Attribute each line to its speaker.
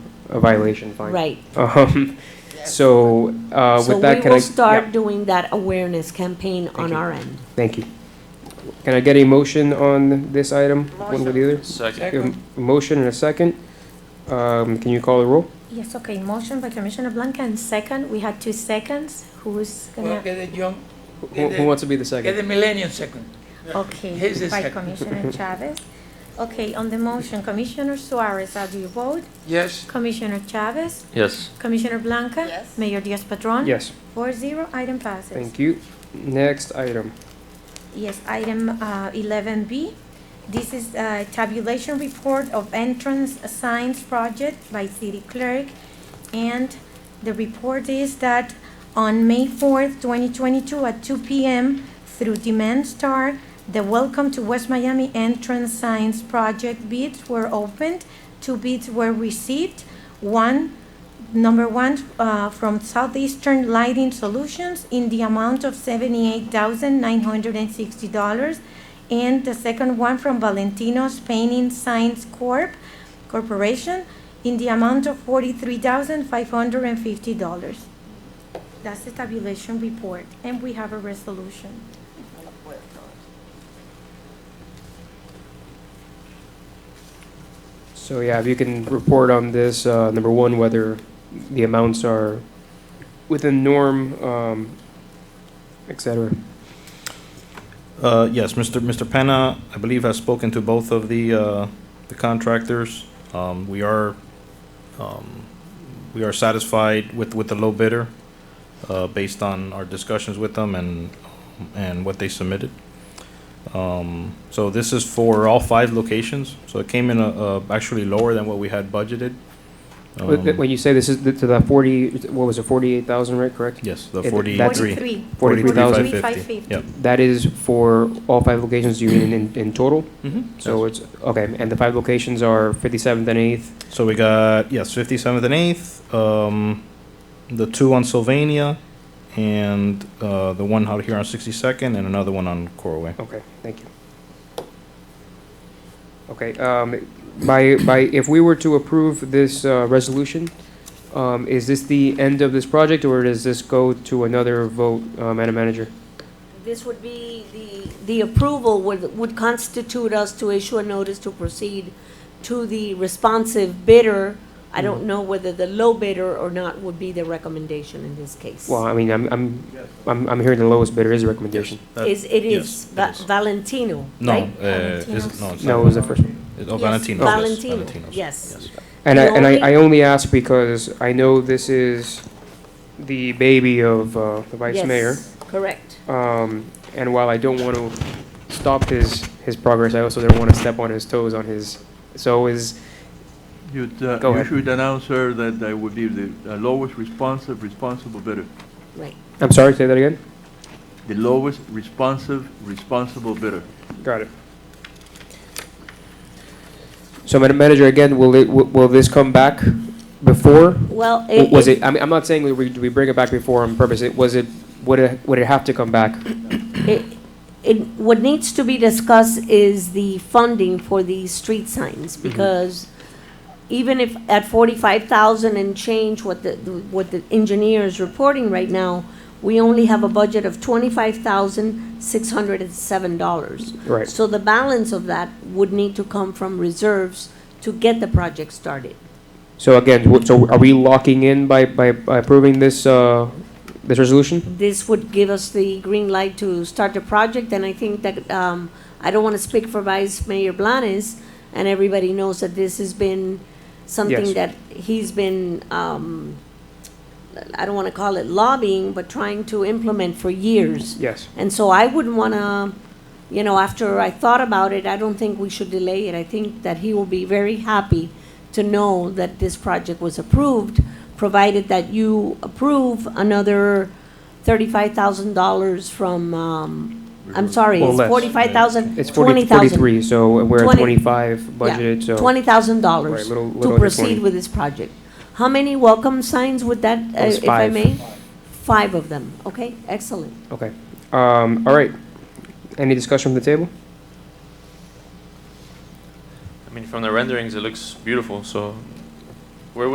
Speaker 1: a violation fine.
Speaker 2: Right.
Speaker 1: Um, so, uh,
Speaker 2: So
Speaker 1: with
Speaker 2: we
Speaker 1: that, can I?
Speaker 2: will
Speaker 1: yeah,
Speaker 2: start doing that awareness campaign on
Speaker 1: you.
Speaker 2: our end.
Speaker 1: Thank you. Can I get a motion on this item, one with the other?
Speaker 3: Second.
Speaker 1: A Motion and a second. Um, can you call the roll?
Speaker 4: Yes, okay, motion by Commissioner Blanca and second, we had two seconds, who's
Speaker 3: Well,
Speaker 4: gonna,
Speaker 3: get the young,
Speaker 1: Who, who wants to be the
Speaker 3: get the
Speaker 1: second?
Speaker 3: millennium second. Here's
Speaker 4: okay,
Speaker 3: the
Speaker 4: by
Speaker 3: second.
Speaker 4: Commissioner Chavez. Okay, on the motion, Commissioner Suarez, how do you vote?
Speaker 3: Yes,
Speaker 4: Commissioner Chavez,
Speaker 5: Yes.
Speaker 4: Commissioner Blanca?
Speaker 6: Yes.
Speaker 4: Mayor Diaz-Padrón?
Speaker 1: Yes,
Speaker 4: Four zero, item passes.
Speaker 1: thank you. Next item.
Speaker 4: Yes, item uh, eleven B. This is uh, tabulation report of entrance signs project by city clerk. And the report is that on May fourth, twenty twenty-two, at two P M, through Demand Star, the Welcome to West Miami Entrance Signs Project bids were opened. Two bids were received. One Number one, uh, from Southeastern Lighting Solutions in the amount of $78,960. And the second one from Valentino's Painting Signs Corp. Corporation in the amount of $43,550. That's the tabulation report, and we have a resolution.
Speaker 6: No lo puedo.
Speaker 1: So, yeah, if you can report on this, uh, number one, whether the amounts are within norm, um, et cetera.
Speaker 7: Uh, Yes, Mr. Mr. Penna, I believe, has spoken to both of the uh, the contractors. Um, We are, um, we are satisfied with, with the low bidder, uh, based on our discussions with them and, and what they submitted. Um, So this is for all five locations, so it came in uh, uh, actually lower than what we had budgeted.
Speaker 1: Wh- wh-
Speaker 7: Um,
Speaker 1: When you say this is th- to the forty, what was it, forty-eight thousand, right, correct?
Speaker 7: Yes, the
Speaker 1: Yeah, th- that's-
Speaker 7: 43.
Speaker 1: 43,000.
Speaker 7: 43,550. Yep.
Speaker 1: That is for all five locations, you mean in, in total?
Speaker 7: Mhm.
Speaker 1: So it's, okay, and the five locations are fifty-seventh and eighth,
Speaker 7: So we got yes, fifty seventh and eighth, um, the two on Sylvania, and uh, the one out here on sixty second, and another one on Corway.
Speaker 1: okay, thank you. Okay, um, by, by, if we were to approve this, uh, resolution, um, is this the end of this project, or does this go to another vote, uh, Madam Manager?
Speaker 2: This would be, the, the approval would, would constitute us to issue a notice to proceed to the responsive bidder. I
Speaker 1: Mm-hmm.
Speaker 2: don't know whether the low bidder or not would be the recommendation in this case.
Speaker 1: Well, I mean, I'm, I'm, I'm, I'm hearing the lowest bidder is a recommendation.
Speaker 7: That-
Speaker 2: Is, it
Speaker 7: yes,
Speaker 2: is
Speaker 7: it
Speaker 2: Va-
Speaker 7: is.
Speaker 2: Valentino,
Speaker 7: No,
Speaker 2: right?
Speaker 7: uh, is it- no, it's
Speaker 1: No,
Speaker 7: not.
Speaker 1: it was the first one.
Speaker 7: It- oh,
Speaker 2: Yes,
Speaker 7: Valentino's. yes,
Speaker 2: Valentino,
Speaker 7: Valentino's,
Speaker 2: yes.
Speaker 1: And I,
Speaker 2: The
Speaker 1: and I,
Speaker 2: only-
Speaker 1: I only ask because I know this is the baby of, uh, the vice
Speaker 2: Yes,
Speaker 1: mayor.
Speaker 2: Correct.
Speaker 1: Um, and while I don't want to stop his, his progress, I also don't want to step on his toes on his, so is,
Speaker 8: You'd, uh,
Speaker 1: Go
Speaker 8: you
Speaker 1: ahead.
Speaker 8: should announce, sir, that they would be the uh, lowest responsive, responsible bidder.
Speaker 2: Right.
Speaker 1: I'm sorry, say that again?
Speaker 8: The lowest responsive, responsible bidder.
Speaker 1: Got it. So Madam Manager, again, will it, will- will this come back before?
Speaker 2: Well,
Speaker 1: W-
Speaker 2: it,
Speaker 1: Was
Speaker 2: it,
Speaker 1: it, I mean, I'm not saying we, we bring it back before on purpose, it, was it, would it, would it have to come back?
Speaker 2: it- it, what needs to be discussed is the funding for the street signs, because even if at forty-five thousand and change, what the, what the engineer is reporting right now, we only have a budget of twenty-five thousand, six hundred and seven dollars.
Speaker 1: Right.
Speaker 2: So the balance of that would need to come from reserves to get the project started.
Speaker 1: So again, w- so are we locking in by, by by approving this, uh, this resolution?
Speaker 2: this would give us the green light to start the project, and I think that, um, I don't want to speak for Vice Mayor Blanes, and everybody knows that this has been something
Speaker 1: Yes.
Speaker 2: that he's been, um, I don't want to call it lobbying, but trying to implement for years.
Speaker 1: Yes.
Speaker 2: And so I wouldn't want to, you know, after I thought about it, I don't think we should delay it. I think that he will be very happy to know that this project was approved, provided that you approve another thirty-five thousand dollars from, um, I'm sorry,
Speaker 1: Or
Speaker 2: it's
Speaker 1: less.
Speaker 2: forty-five thousand,
Speaker 1: It's 40
Speaker 2: twenty thousand.
Speaker 1: 43, so we're at
Speaker 2: Twenty-
Speaker 1: 25 budgeted, so.
Speaker 2: Twenty thousand
Speaker 1: Right,
Speaker 2: dollars
Speaker 1: little- little
Speaker 2: to
Speaker 1: under 20.
Speaker 2: proceed with this project. How many welcome signs would that, uh,
Speaker 1: was
Speaker 2: if I
Speaker 1: five.
Speaker 2: may? Five of them, okay, excellent.
Speaker 1: Okay. Um, all right. Any discussion from the table?
Speaker 5: I mean, from the renderings, it looks beautiful, so